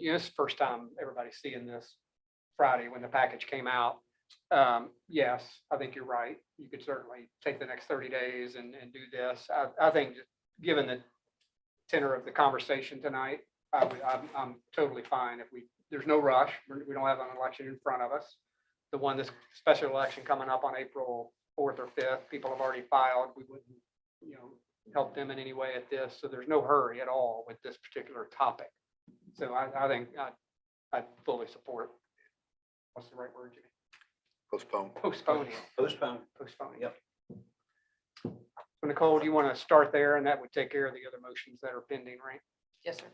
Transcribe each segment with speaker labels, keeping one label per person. Speaker 1: you know, this is the first time everybody's seeing this Friday when the package came out. Um, yes, I think you're right. You could certainly take the next thirty days and, and do this. I, I think, just given the tenor of the conversation tonight, I would, I'm, I'm totally fine if we, there's no rush. We're- We don't have an election in front of us. The one, this special election coming up on April fourth or fifth, people have already filed. We wouldn't, you know, help them in any way at this. So there's no hurry at all with this particular topic. So I, I think I, I fully support, what's the right word, Jimmy?
Speaker 2: Postpone.
Speaker 1: Postponing,
Speaker 3: Postpone.
Speaker 1: postponing.
Speaker 3: Yep.
Speaker 1: So Nicole, do you want to start there? And that would take care of the other motions that are pending, right?
Speaker 4: Yes, sir.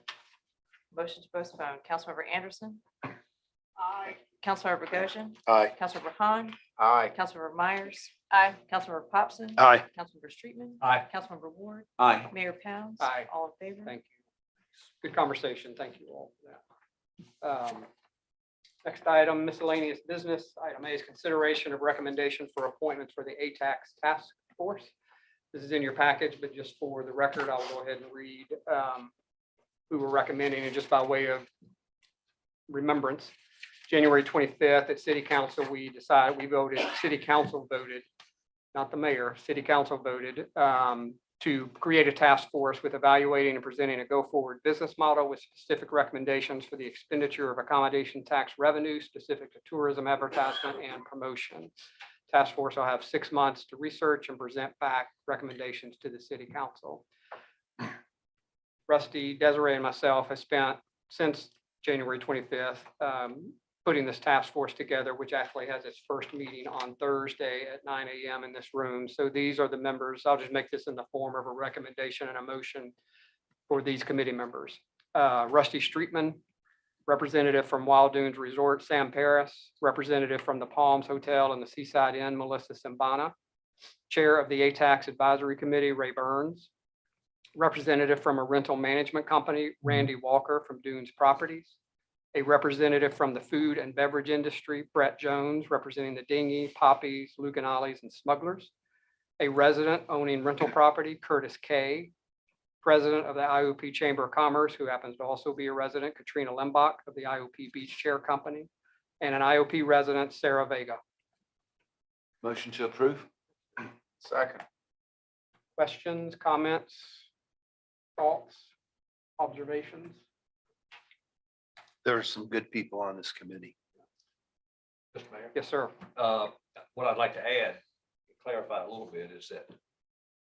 Speaker 4: Motion to postpone, Councilmember Anderson,
Speaker 1: Aye.
Speaker 4: Councilmember Goshen,
Speaker 2: Aye.
Speaker 4: Councilmember Han,
Speaker 2: Aye.
Speaker 4: Councilmember Myers. Aye. Councilmember Popson.
Speaker 2: Aye.
Speaker 4: Councilmember Streetman.
Speaker 3: Aye.
Speaker 4: Councilmember Ward,
Speaker 3: Aye.
Speaker 4: Mayor Pounds.
Speaker 1: Aye.
Speaker 4: All in favor?
Speaker 1: Thank you. Good conversation. Thank you all for that. Um, Next item, miscellaneous business. Item A is consideration of recommendation for appointments for the ATAX Task Force. This is in your package, but just for the record, I'll go ahead and read um, who we're recommending and just by way of remembrance. January 25th at City Council, we decided, we voted, City Council voted, not the mayor, City Council voted um, to create a task force with evaluating and presenting a go-forward business model with specific recommendations for the expenditure of accommodation tax revenue specific to tourism advertisement and promotion. Task force will have six months to research and present back recommendations to the city council. Rusty, Desiree, and myself have spent since January 25th um, putting this task force together, which actually has its first meeting on Thursday at nine AM in this room. So these are the members. I'll just make this in the form of a recommendation and a motion for these committee members. Uh, Rusty Streetman, representative from Wild Dunes Resort, Sam Paris, representative from the Palms Hotel and the Seaside Inn, Melissa Simbana, chair of the ATAX Advisory Committee, Ray Burns, representative from a rental management company, Randy Walker from Dunes Properties, a representative from the food and beverage industry, Brett Jones, representing the Dingy, Poppies, Luganolles, and Smugglers. A resident owning rental property, Curtis Kay. President of the IOP Chamber of Commerce, who happens to also be a resident, Katrina Lembach of the IOP Beach Chair Company. And an IOP resident, Sarah Vega.
Speaker 3: Motion to approve?
Speaker 2: Second.
Speaker 1: Questions, comments, thoughts, observations?
Speaker 2: There are some good people on this committee.
Speaker 5: Mr. Mayor,
Speaker 1: Yes, sir.
Speaker 5: uh, what I'd like to add, clarify a little bit, is that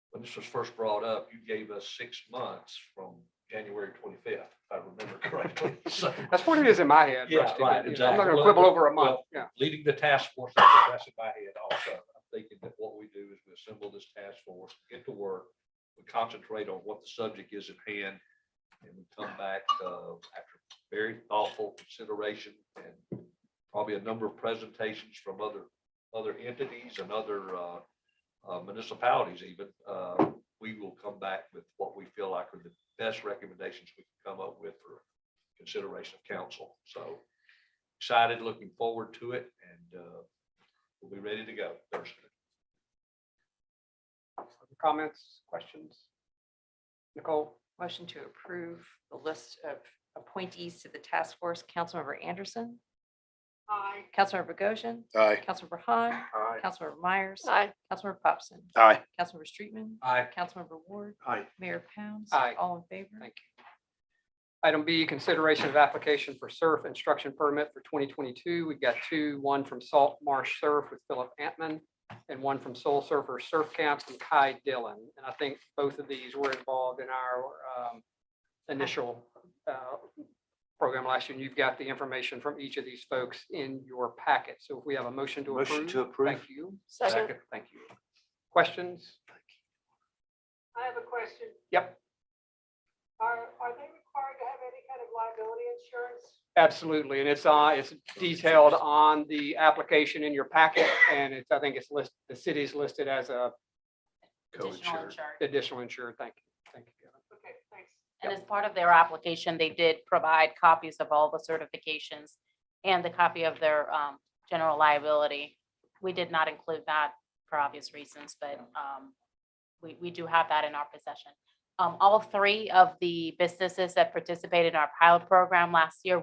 Speaker 5: when this was first brought up, you gave us six months from January twenty-fifth, if I remember correctly. So
Speaker 1: That's what it is in my head.
Speaker 5: Yeah,
Speaker 1: Rusty, but,
Speaker 5: right,
Speaker 1: you know, I'm
Speaker 5: exactly.
Speaker 1: not gonna
Speaker 5: Well,
Speaker 1: quibble over a month.
Speaker 5: well,
Speaker 1: Yeah,
Speaker 5: leading the task force, I think that's in my head also. I'm thinking that what we do is we assemble this task force, get to work, we concentrate on what the subject is at hand, and we come back uh, after very thoughtful consideration and probably a number of presentations from other, other entities and other uh, uh, municipalities even. uh, We will come back with what we feel like are the best recommendations we can come up with for consideration of council. So excited, looking forward to it, and uh, we'll be ready to go Thursday.
Speaker 1: comments, questions? Nicole?
Speaker 4: Motion to approve the list of appointees to the task force, Councilmember Anderson. Aye. Councilmember Goshen,
Speaker 2: Aye.
Speaker 4: Councilmember Han,
Speaker 2: Aye.
Speaker 4: Councilmember Myers. Aye. Councilmember Popson,
Speaker 2: Aye.
Speaker 4: Councilmember Streetman,
Speaker 5: Aye.
Speaker 4: Councilmember Ward,
Speaker 3: Aye.
Speaker 4: Mayor Pounds.
Speaker 1: Aye.
Speaker 4: All in favor?
Speaker 1: Thank Item B, consideration of application for surf instruction permit for 2022. We've got two, one from Salt Marsh Surf with Philip Antman and one from Soul Surfer Surf Camp from Kai Dillon. And I think both of these were involved in our um, initial uh, program last year. And you've got the information from each of these folks in your packet. So if we have a motion to approve.
Speaker 3: Motion to approve.
Speaker 1: Thank you.
Speaker 5: Second.
Speaker 1: Thank you. Questions?
Speaker 6: I have a question.
Speaker 1: Yep.
Speaker 6: Are, are they required to have any kind of liability insurance?
Speaker 1: Absolutely, and it's, uh, it's detailed on the application in your packet, and it's, I think it's listed, the city's listed as a
Speaker 4: Additional
Speaker 2: Co-insured.
Speaker 4: insurance.
Speaker 1: additional insured, thank you, thank you. Kevin.
Speaker 6: Okay, thanks.
Speaker 7: And as part of their application, they did provide copies of all the certifications and the copy of their um, general liability. We did not include that for obvious reasons, but um, we, we do have that in our possession. Um, All three of the businesses that participated in our pilot program last year